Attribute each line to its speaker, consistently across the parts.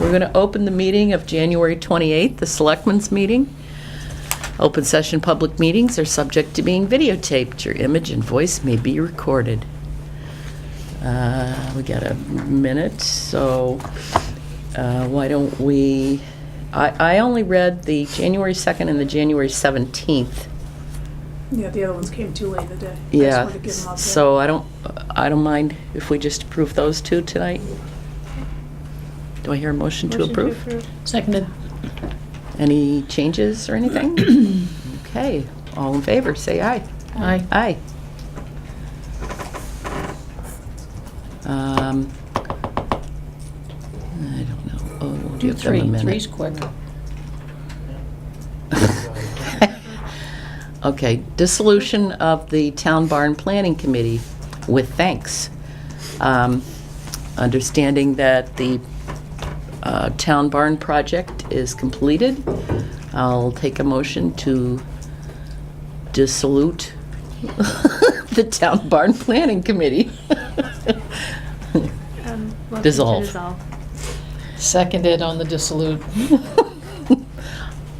Speaker 1: We're going to open the meeting of January 28th, the Selectmen's Meeting. Open session public meetings are subject to being videotaped. Your image and voice may be recorded. Uh, We got a minute, so uh, why don't we, I I only read the January 2nd and the January 17th.
Speaker 2: Yeah, the other ones came too late in the day. I just
Speaker 1: Yeah,
Speaker 2: wanted to give them up.
Speaker 1: so I don't, I don't mind if we just approve those two tonight. Do I hear a motion to approve?
Speaker 3: Seconded.
Speaker 1: Any changes or anything? Okay, all in favor, say aye.
Speaker 3: Aye.
Speaker 1: Aye. Um, I don't know. Oh, we'll
Speaker 3: Do
Speaker 1: give them a
Speaker 3: three.
Speaker 1: minute.
Speaker 3: Three's quick.
Speaker 1: Okay, dissolution of the Town Barn Planning Committee with thanks. Um, Understanding that the uh, Town Barn project is completed, I'll take a motion to dissolute the Town Barn Planning Committee.
Speaker 4: Um, motion to
Speaker 1: Dissolve.
Speaker 3: Seconded on the dissolute.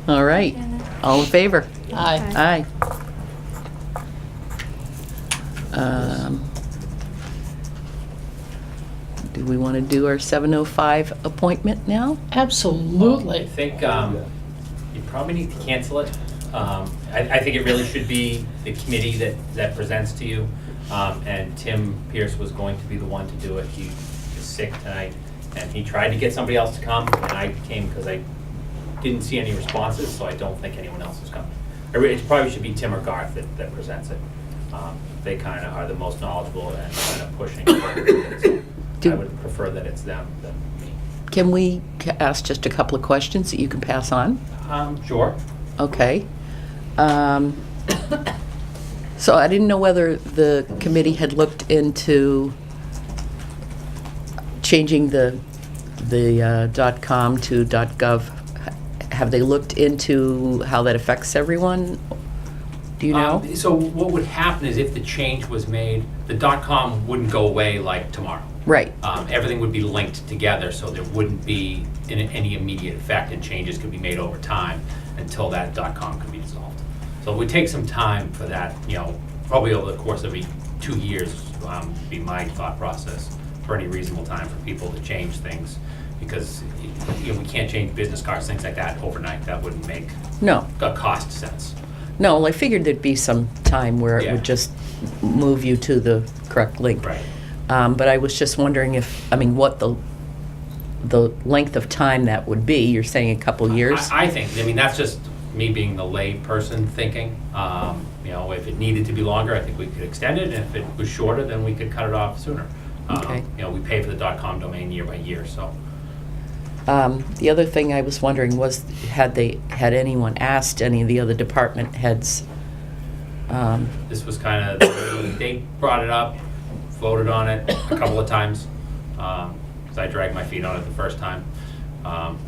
Speaker 1: All right, all in favor?
Speaker 3: Aye.
Speaker 1: Aye. Um, Do we want to do our 7:05 appointment now?
Speaker 3: Absolutely.
Speaker 5: I think um, you probably need to cancel it. Um, I I think it really should be the committee that that presents to you. Um, And Tim Pierce was going to be the one to do it. He is sick tonight, and he tried to get somebody else to come, and I came because I didn't see any responses, so I don't think anyone else is coming. I re- It probably should be Tim or Garth that that presents it. Um, They kind of are the most knowledgeable and kind of pushing. So I
Speaker 1: Do-
Speaker 5: would prefer that it's them than me.
Speaker 1: Can we ca- ask just a couple of questions that you can pass on?
Speaker 5: Um, Sure.
Speaker 1: Okay. Um, So I didn't know whether the committee had looked into changing the, the uh, dot .com to dot .gov. Have they looked into how that affects everyone? Do you know?
Speaker 5: Um, So what would happen is if the change was made, the dot-com wouldn't go away like tomorrow.
Speaker 1: Right,
Speaker 5: Um, Everything would be linked together, so there wouldn't be in- any immediate effect, and changes could be made over time until that dot-com could be dissolved. So it would take some time for that, you know, probably over the course of e- two years, um, would be my thought process, for any reasonable time for people to change things, because, you know, we can't change business cards, things like that overnight, that wouldn't make
Speaker 1: no,
Speaker 5: a cost sense.
Speaker 1: no, I figured there'd be some time where it
Speaker 5: Yeah.
Speaker 1: would just move you to the correct link.
Speaker 5: Right.
Speaker 1: Um, But I was just wondering if, I mean, what the, the length of time that would be. You're saying a couple years?
Speaker 5: I, I think, I mean, that's just me being the lay person thinking. Um, You know, if it needed to be longer, I think we could extend it, and if it was shorter, then we could cut it off sooner. Um,
Speaker 1: Okay.
Speaker 5: You know, we pay for the dot-com domain year by year, so.
Speaker 1: Um, The other thing I was wondering was, had they, had anyone asked any of the other department heads? Um,
Speaker 5: This was kind of, they brought it up, voted on it a couple of times, because I dragged my feet on it the first time. Um,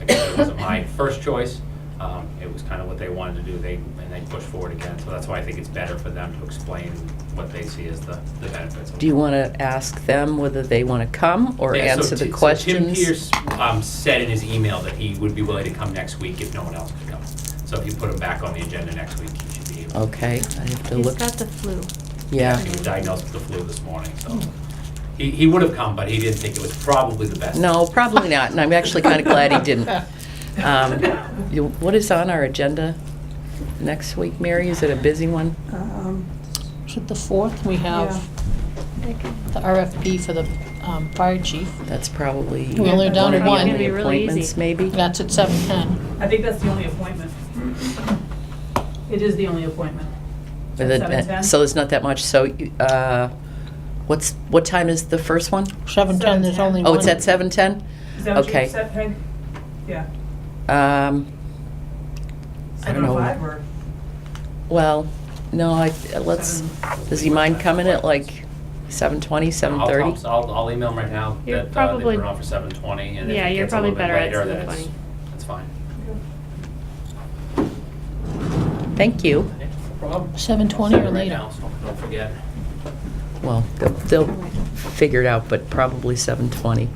Speaker 5: I guess it wasn't my first choice. Um, It was kind of what they wanted to do, they, and they pushed forward again. So that's why I think it's better for them to explain what they see as the the benefits. of
Speaker 1: Do you want to ask them whether they want to come or
Speaker 5: Yeah, so
Speaker 1: answer the
Speaker 5: Ti- so
Speaker 1: questions?
Speaker 5: Tim Pierce um, said in his email that he would be willing to come next week if no one else could come. So if you put him back on the agenda next week, he should be able to.
Speaker 1: Okay, I have to
Speaker 4: He's
Speaker 1: look,
Speaker 4: got the flu.
Speaker 1: yeah.
Speaker 5: He was diagnosed with the flu this morning, so. He, he would have come, but he didn't think it was probably the best.
Speaker 1: No, probably not, and I'm actually kind of glad he didn't. Um, you- What is on our agenda next week, Mary? Is it a busy one?
Speaker 2: Um,
Speaker 3: Is it the fourth? We have the RFP for the um, fire chief.
Speaker 1: That's probably.
Speaker 3: Well, they're down to
Speaker 1: of the
Speaker 3: one.
Speaker 1: only
Speaker 3: It's gonna
Speaker 4: be really easy.
Speaker 1: Appointments, maybe?
Speaker 3: That's at seven ten.
Speaker 6: I think that's the only appointment. It is the only appointment.
Speaker 1: With it-
Speaker 6: 7:10?
Speaker 1: So there's not that much, so, you- uh, what's, what time is the first one?
Speaker 3: Seven ten, there's
Speaker 6: 7:10.
Speaker 3: only one.
Speaker 1: Oh, it's at 7:10?
Speaker 6: Is that what
Speaker 1: Okay.
Speaker 6: you said, Peg? Yeah.
Speaker 1: Um, I don't know.
Speaker 6: 7:05 or
Speaker 1: Well, no, I, let's, does he mind coming at like 7:20,
Speaker 5: I'll- I'll-
Speaker 1: 7:30?
Speaker 5: I'll, I'll email him right now
Speaker 4: You're
Speaker 5: that uh, they put
Speaker 4: probably-
Speaker 5: it on for seven twenty, and if
Speaker 4: Yeah,
Speaker 5: it
Speaker 4: you're
Speaker 5: gets a little
Speaker 4: probably
Speaker 5: bit
Speaker 4: better at
Speaker 5: later, then it's,
Speaker 4: 7:20.
Speaker 5: that's fine.
Speaker 1: Thank you.
Speaker 5: Yeah, no problem. I'll
Speaker 3: 7:20
Speaker 5: send
Speaker 3: or
Speaker 5: it right
Speaker 3: later.
Speaker 5: now, so Don't forget.
Speaker 1: Well, they'll- they'll figure it out, but probably 7:20.